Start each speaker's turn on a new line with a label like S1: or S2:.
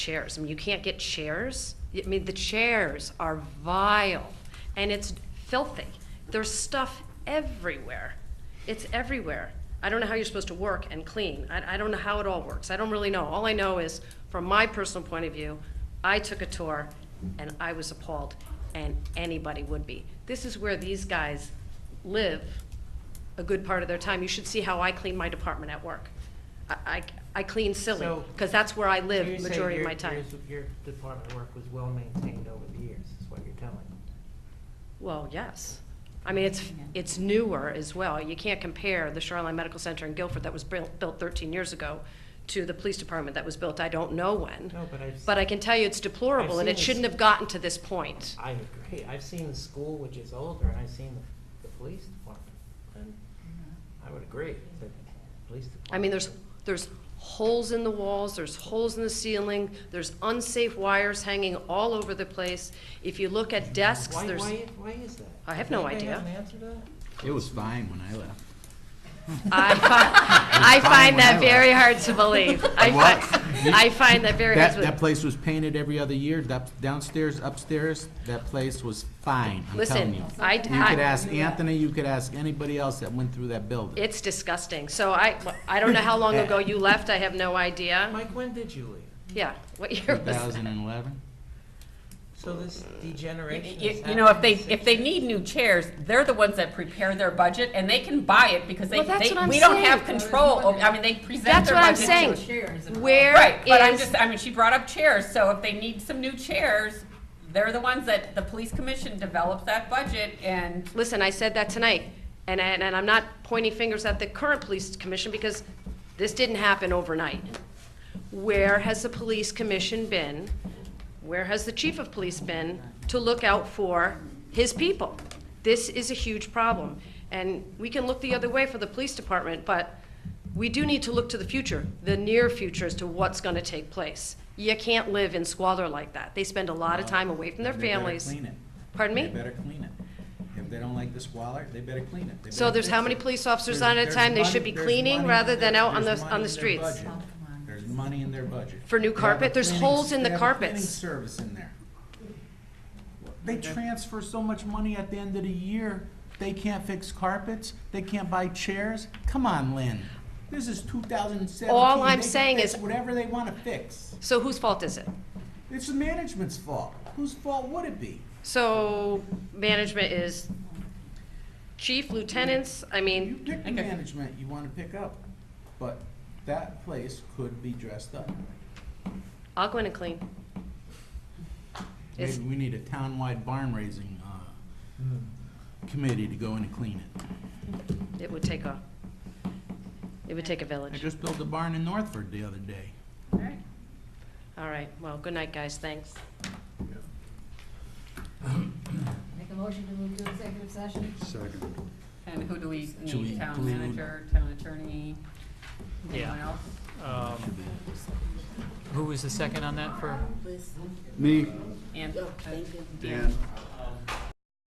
S1: chairs. I mean, you can't get chairs. I mean, the chairs are vile and it's filthy. There's stuff everywhere. It's everywhere. I don't know how you're supposed to work and clean. I, I don't know how it all works. I don't really know. All I know is, from my personal point of view, I took a tour and I was appalled, and anybody would be. This is where these guys live a good part of their time. You should see how I clean my department at work. I, I, I clean silly,
S2: So-
S1: because that's where I
S2: So
S1: live
S2: you're saying
S1: majority of
S2: your-
S1: my time.
S2: yours- Your department work was well-maintained over the years, is what you're telling me.
S1: Well, yes. I mean, it's, it's newer as well. You can't compare the Shoreline Medical Center in Guilford that was built built 13 years ago to the police department that was built, I don't know when.
S2: No, but I've.
S1: But I can tell you it's deplorable, and
S2: seen
S1: it
S2: this.
S1: shouldn't have gotten to this point.
S2: I agree. I've seen the school, which is older, and I've seen the, the police department. And I would agree that the police department.
S1: I mean, there's, there's holes in the walls, there's holes in the ceiling, there's unsafe wires hanging all over the place. If you look at desks,
S2: Why,
S1: there's,
S2: why, why is that?
S1: I have no
S2: Anybody have
S1: idea.
S2: an answer to that?
S3: It was fine when I left.
S1: I find, I
S3: It's fine
S1: find
S3: when I
S1: that
S3: left.
S1: very hard to believe. I
S3: What?
S1: find, I find that very hard
S3: That,
S1: to
S3: that
S1: believe.
S3: place was painted every other year, that downstairs, upstairs, that place was fine, I'm telling
S1: Listen,
S3: you.
S1: I,
S3: You could
S1: I,
S3: ask Anthony, you could ask anybody else that went through that building.
S1: it's disgusting. So I, I don't know how long ago you left, I have no idea.
S2: Mike, when did you leave?
S1: Yeah, what year was that?
S3: 2011?
S2: So this degeneration is
S4: You, you know, if they,
S2: happening
S4: if they
S2: since-
S4: need new chairs, they're the ones that prepare their budget and they can buy it because they,
S1: Well, that's
S4: they,
S1: what I'm
S4: we don't
S1: saying.
S4: have control. over- I mean, they present
S1: That's
S4: their
S1: what I'm
S4: budget.
S1: saying. Where
S4: Right, but I'm
S1: is,
S4: just, I mean, she brought up chairs, so if they need some new chairs, they're the ones that the police commission develops that budget and
S1: listen, I said that tonight, and, and, and I'm not pointing fingers at the current police commission, because this didn't happen overnight. Where has the police commission been? Where has the chief of police been to look out for his people? This is a huge problem, and we can look the other way for the police department, but we do need to look to the future, the near future, as to what's gonna take place. You can't live in squalor like that. They spend a lot of time away from their
S3: They better
S1: families.
S3: clean it.
S1: Pardon me?
S3: They better clean it. If they don't like the squalor, they better clean it. They
S1: So
S3: better
S1: there's how
S3: fix
S1: many
S3: it.
S1: police officers
S3: There's-
S1: on at a
S3: there's
S1: time? They
S3: money-
S1: should be
S3: there's
S1: cleaning
S3: money
S1: rather
S3: in
S1: than
S3: their-
S1: out on
S3: there's
S1: the,
S3: money
S1: on
S3: in
S1: the
S3: their
S1: streets.
S3: budget. There's money in their budget.
S1: For new
S3: They have a
S1: carpet? There's
S3: cleaning-
S1: holes in the
S3: they have a cleaning
S1: carpets.
S3: Service in there. They transfer so much money at the end of the year, they can't fix carpets, they can't buy chairs. Come on, Lynn. This is two thousand and seventeen.
S1: All I'm saying is-
S3: Whatever they wanna fix.
S1: So whose fault is it?
S3: It's the management's fault. Whose fault would it be?
S1: So management is chief, lieutenants, I
S3: You
S1: mean,
S3: pick the management you wanna pick up, but that place could be dressed up.
S1: I'll go in and clean. It's-
S3: Maybe we need a townwide barn raising, uh, committee to go in and clean it.
S1: It would take a, it would take a
S3: I
S1: village.
S3: just built a barn in Northford the other day.
S1: All right, well, good night, guys, thanks.
S5: Make a motion to move to executive session?
S6: Second.
S4: And who do we
S3: Should we
S4: need, town
S3: include-
S4: manager, town attorney, anyone
S7: Yeah.
S4: else?
S7: Um, Who was the second on that for?
S6: Me,
S4: And,
S5: Thank you.
S6: Dan,